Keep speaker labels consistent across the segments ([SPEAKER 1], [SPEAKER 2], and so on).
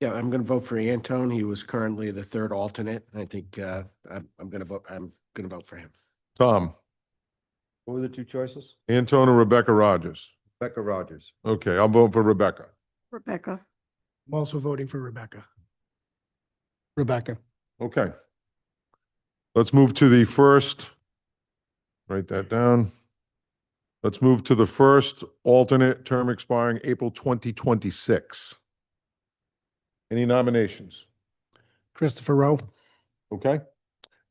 [SPEAKER 1] Yeah, I'm going to vote for Anton. He was currently the third alternate. and I think uh, I'm, I'm going to vote, I'm going to vote for him.
[SPEAKER 2] Tom,
[SPEAKER 3] What were the two choices?
[SPEAKER 2] Anton or Rebecca Rogers?
[SPEAKER 3] Becca Rogers.
[SPEAKER 2] Okay, I'll vote for Rebecca.
[SPEAKER 4] Rebecca.
[SPEAKER 5] I'm also voting for Rebecca. Rebecca.
[SPEAKER 2] Okay. Let's move to the first. Write that down. Let's move to the first alternate term expiring April 2026. Any nominations?
[SPEAKER 5] Christopher Rowe.
[SPEAKER 2] Okay?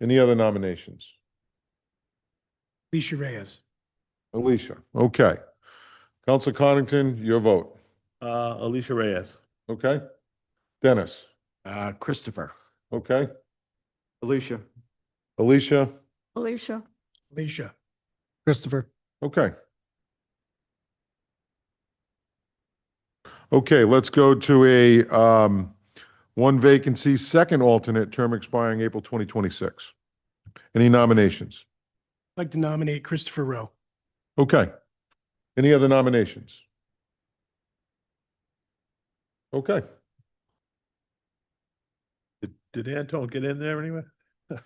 [SPEAKER 2] Any other nominations?
[SPEAKER 5] Alicia Reyes.
[SPEAKER 2] Alicia, okay. Council Connington, your vote,
[SPEAKER 6] Uh, Alicia Reyes.
[SPEAKER 2] okay? Dennis,
[SPEAKER 1] Uh, Christopher,
[SPEAKER 2] okay?
[SPEAKER 3] Alicia.
[SPEAKER 2] Alicia,
[SPEAKER 4] Alicia.
[SPEAKER 5] Alicia. Christopher.
[SPEAKER 2] okay. Okay, let's go to a um, one vacancy, second alternate, term expiring April 2026. Any nominations?
[SPEAKER 5] I'd like to nominate Christopher Rowe.
[SPEAKER 2] Okay. Any other nominations? Okay.
[SPEAKER 6] Did, did Anton get in there anyway?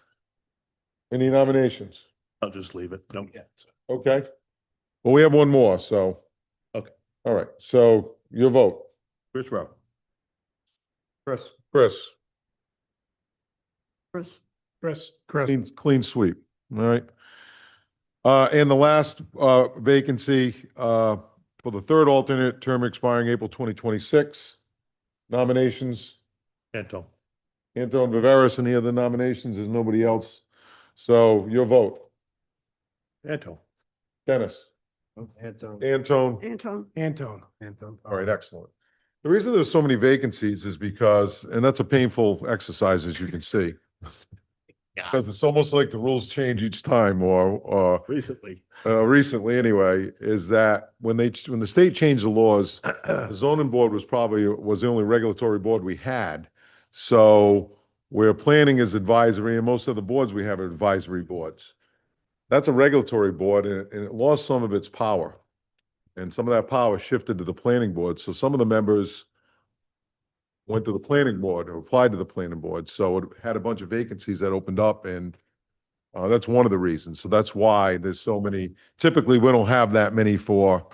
[SPEAKER 2] Any nominations?
[SPEAKER 6] I'll just leave it. Don't get.
[SPEAKER 2] Okay. Well, we have one more, so.
[SPEAKER 6] Okay.
[SPEAKER 2] All right, so your vote,
[SPEAKER 6] Chris Rowe.
[SPEAKER 3] Chris.
[SPEAKER 2] Chris,
[SPEAKER 4] Chris.
[SPEAKER 5] Chris. Chris.
[SPEAKER 2] clean, clean sweep, all right? Uh, and the last, uh, vacancy, uh, for the third alternate, term expiring April twenty twenty-six. Nominations,
[SPEAKER 6] Anton.
[SPEAKER 2] Anton Viveras, any other nominations? There's nobody else. So your vote,
[SPEAKER 6] Anton.
[SPEAKER 2] Dennis,
[SPEAKER 3] Anton.
[SPEAKER 2] Anton.
[SPEAKER 4] Anton.
[SPEAKER 5] Anton.
[SPEAKER 3] Anton.
[SPEAKER 2] All right, excellent. The reason there's so many vacancies is because, and that's a painful exercise, as you can see. Because it's almost like the rules change each time or, or,
[SPEAKER 6] Recently.
[SPEAKER 2] uh, recently anyway, is that when they, when the state changed the laws, the zoning board was probably, was the only regulatory board we had. So where planning is advisory and most of the boards we have are advisory boards. That's a regulatory board and, it- and it lost some of its power. And some of that power shifted to the planning board. So some of the members went to the planning board or applied to the planning board. So it had a bunch of vacancies that opened up and uh, that's one of the reasons. So that's why there's so many, typically we don't have that many for,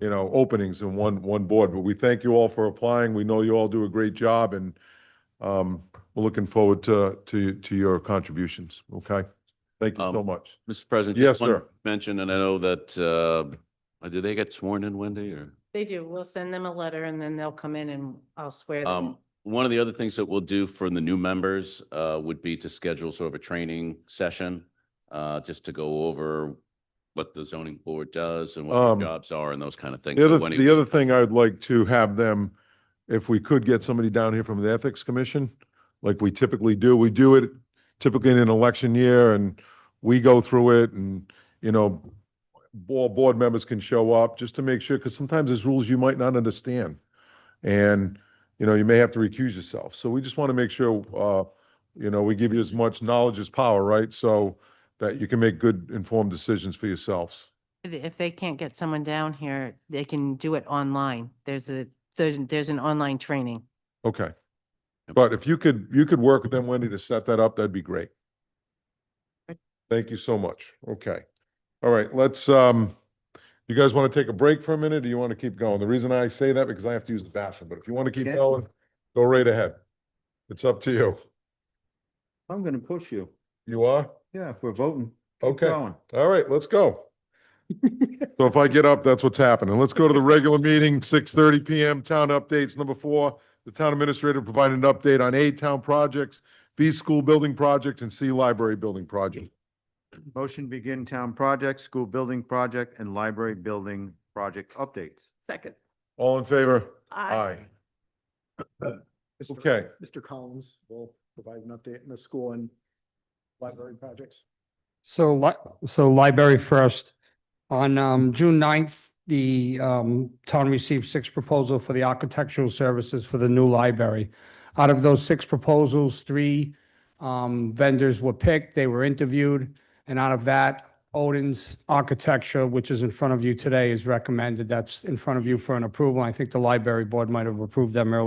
[SPEAKER 2] you know, openings in one, one board, but we thank you all for applying. We know you all do a great job and um, we're looking forward to, to, to your contributions. Okay? Thank you so
[SPEAKER 7] Um,
[SPEAKER 2] much.
[SPEAKER 7] Mr. President.
[SPEAKER 2] Yes,
[SPEAKER 7] just one
[SPEAKER 2] sir.
[SPEAKER 7] Mention, and I know that, uh, did they get sworn in, Wendy, or?
[SPEAKER 8] They do. We'll send them a letter and then they'll come in and I'll swear them. in.
[SPEAKER 7] Um, one of the other things that we'll do for the new members, uh, would be to schedule sort of a training session, uh, just to go over what the zoning board does and what
[SPEAKER 2] Um,
[SPEAKER 7] their jobs are and those kind of things.
[SPEAKER 2] The other,
[SPEAKER 7] Wendy,
[SPEAKER 2] the other thing I'd like to have them, if we could get somebody down here from the Ethics Commission, like we typically do, we do it typically in an election year and we go through it and, you know, all board members can show up just to make sure, because sometimes there's rules you might not understand. And, you know, you may have to recuse yourself. So we just want to make sure, uh, you know, we give you as much knowledge as power, right? So that you can make good informed decisions for yourselves.
[SPEAKER 8] If they can't get someone down here, they can do it online. There's a, there's, there's an online training.
[SPEAKER 2] Okay. But if you could, you could work with them, Wendy, to set that up, that'd be great. Thank you so much. Okay. All right, let's, um, you guys want to take a break for a minute or you want to keep going? The reason I say that because I have to use the bathroom, but if you want to keep
[SPEAKER 3] Okay.
[SPEAKER 2] going, go right ahead. It's up to you.
[SPEAKER 3] I'm gonna push you.
[SPEAKER 2] You are?
[SPEAKER 3] Yeah, if we're voting. keep
[SPEAKER 2] Okay.
[SPEAKER 3] going.
[SPEAKER 2] All right, let's go. So if I get up, that's what's happening. Let's go to the regular meeting, six thirty PM, town updates. Number four, the town administrator provided an update on A, town projects, B, school building project, and C, library building project.
[SPEAKER 3] Motion begin town project, school building project, and library building project updates.
[SPEAKER 4] Second.
[SPEAKER 2] All in favor?
[SPEAKER 4] Aye.
[SPEAKER 2] Okay.
[SPEAKER 9] Mr. Collins will provide an update on the school and library projects.
[SPEAKER 10] So li- so library first. On um June 9th, the um town received six proposals for the architectural services for the new library. Out of those six proposals, three um vendors were picked, they were interviewed, and out of that, Odin's Architecture, which is in front of you today, is recommended. That's in front of you for an approval. I think the library board might have approved them earlier.